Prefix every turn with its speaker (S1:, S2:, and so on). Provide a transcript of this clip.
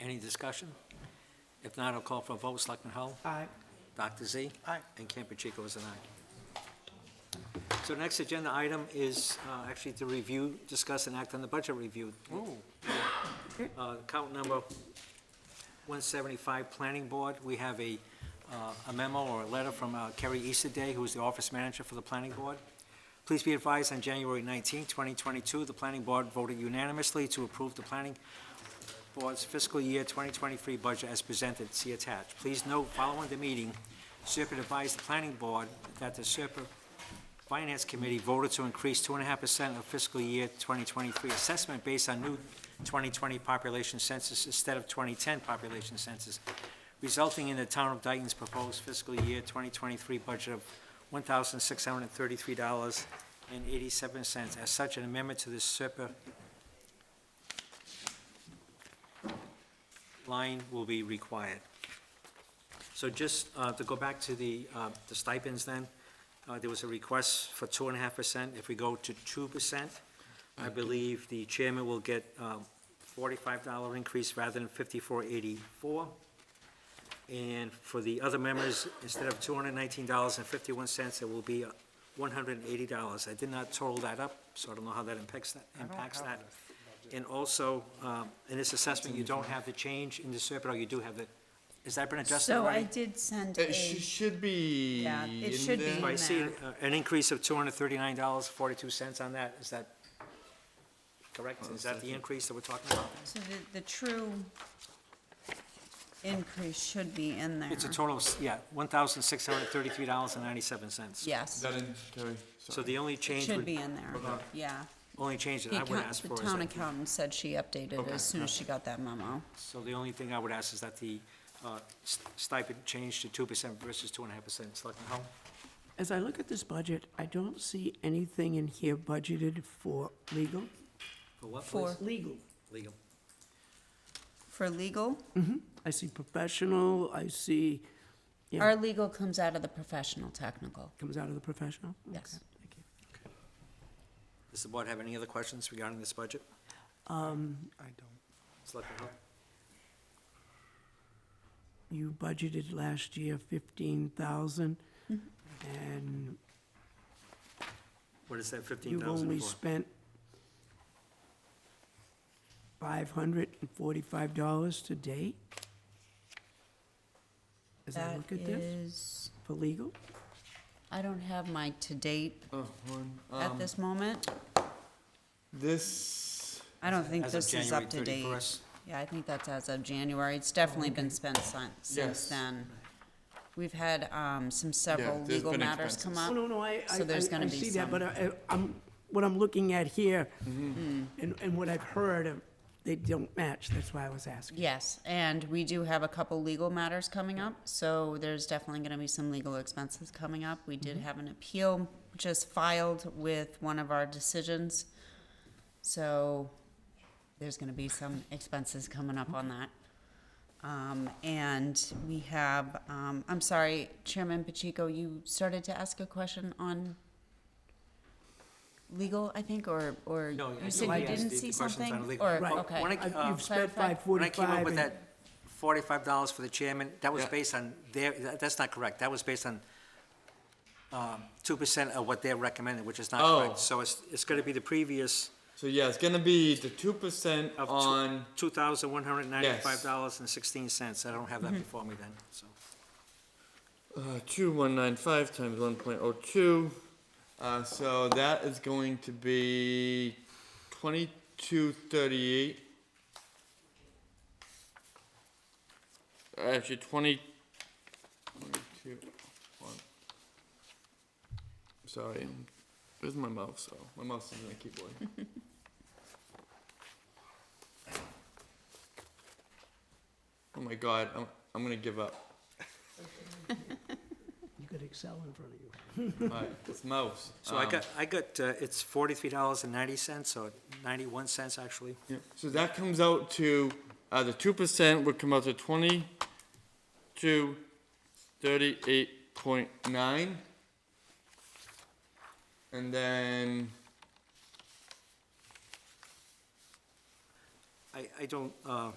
S1: Any discussion? If not, I'll call for a vote. Selectman Hull?
S2: Aye.
S1: Dr. Z?
S2: Aye.
S1: And Campuchico is an aye. So next agenda item is uh, actually to review, discuss, and act on the budget review. Uh, Count number 175, Planning Board. We have a uh, a memo or a letter from uh, Kerry Easterday, who is the office manager for the Planning Board. Please be advised, on January 19, 2022, the Planning Board voted unanimously to approve the Planning Board's fiscal year 2023 budget as presented, see attached. Please note, following the meeting, Serpent advised the planning board that the Serpent Finance Committee voted to increase 2.5% of fiscal year 2023 assessment based on new 2020 population census instead of 2010 population census, resulting in the town of Dayton's proposed fiscal year 2023 budget of $1,633.87. As such, an amendment to the Serpent line will be required. So just uh, to go back to the uh, the stipends then, uh, there was a request for two and a half percent. If we go to two percent, I believe the chairman will get um, forty-five dollar increase rather than fifty-four eighty-four. And for the other members, instead of two hundred nineteen dollars and fifty-one cents, it will be uh, one hundred and eighty dollars. I did not total that up, so I don't know how that impacts that, impacts that. And also, um, in this assessment, you don't have the change in the SERP, or you do have the, has that been adjusted
S3: So I
S1: already? Eh,
S3: did send a,
S4: It sh- should be
S3: Yeah, it
S4: in
S3: should be
S4: there.
S3: in
S1: So I see
S3: there.
S1: uh, an increase of two hundred thirty-nine dollars, forty-two cents on that, is that correct? Is that the increase that we're talking about?
S3: so the, the true increase should be in there.
S1: It's a total, of s- yeah, one thousand six hundred thirty-three dollars and ninety-seven cents.
S4: Is
S3: Yes,
S4: that in, Terry?
S1: So the only change,
S3: should
S1: would-
S3: be in there, yeah.
S1: only change that
S3: The
S1: I would
S3: account-
S1: ask
S3: the
S1: for is
S3: town
S1: that,
S3: accountant said she updated as soon as she got that memo.
S1: so the only thing I would ask is that the uh, s- stipend change to two percent versus two and a half percent. Selectman Hull?
S2: As I look at this budget, I don't see anything in here budgeted for legal.
S1: For what,
S3: For,
S1: please?
S2: Legal.
S1: Legal.
S3: for legal,
S2: I see professional, I see, Yeah.
S3: our legal comes out of the professional technical,
S2: comes out of the professional?
S3: yes.
S1: Does the board have any other questions regarding this budget?
S3: Um,
S2: I don't.
S1: Selectman Hull?
S2: You budgeted last year fifteen thousand,
S3: Mm-hmm.
S2: and
S1: What is that fifteen
S2: you've
S1: thousand
S2: only
S1: for?
S2: spent five hundred and forty-five dollars to date? As I
S3: That
S2: look at this,
S3: is,
S2: for legal?
S3: I don't have my to date
S4: Oh, one,
S3: at
S4: um,
S3: this moment.
S4: This,
S3: I don't think
S1: As of
S3: this is up to
S1: January
S3: date.
S1: 31st.
S3: Yeah, I think that's as of January. It's definitely been spent sin- since
S4: Yes.
S3: then. We've had um, some several
S4: there's
S3: legal
S4: been
S3: matters come
S4: expenses.
S2: Oh,
S3: up.
S2: no, no, I, I,
S3: So there's
S2: I-
S3: gonna
S2: I
S3: be
S2: see that,
S3: some.
S2: but uh, I, I'm, what I'm looking at here,
S3: Mm-hmm.
S2: and, and what I've heard, um, they don't match, that's why I was asking.
S3: Yes, and we do have a couple legal matters coming up, so there's definitely gonna be some legal expenses coming up. We did have an appeal just filed with one of our decisions. So there's gonna be some expenses coming up on that. Um, and we have, um, I'm sorry, Chairman Pacheco, you started to ask a question on legal, I think, or, or
S1: No, I-
S3: you said
S1: I
S3: you
S1: asked
S3: didn't
S1: the-
S3: see
S1: the questions on
S3: something?
S1: legal.
S3: Or,
S2: Right.
S3: okay.
S1: When I-
S2: I-
S1: uh,
S2: You've spent five
S1: When I came up
S2: forty-five,
S1: with
S2: and
S1: that forty-five dollars for the chairman, that was
S4: Yeah.
S1: based on their, that- that's not correct. That was based on um, two percent of what they're recommending, which is not
S4: Oh.
S1: correct. So it's, it's gonna be the previous
S4: so yeah, it's gonna be the two percent
S1: of
S4: on,
S1: two thousand one hundred ninety-five dollars and sixteen cents. I don't have that before me then, so.
S4: uh, two one nine five times one point oh two. Uh, so that is going to be twenty-two thirty-eight. Actually, twenty, twenty-two, one. Sorry, where's my mouse? Oh, my mouse is in the keyboard. Oh my god, I'm, I'm gonna give up.
S2: you got Excel in front of you.
S4: My, this mouse.
S1: So I
S4: Um,
S1: got, I got, uh, it's forty-three dollars and ninety cents, or ninety-one cents actually.
S4: yeah, So that comes out to, uh, the two percent would come out to twenty-two, thirty-eight point nine. And then,
S1: I, I don't, uh,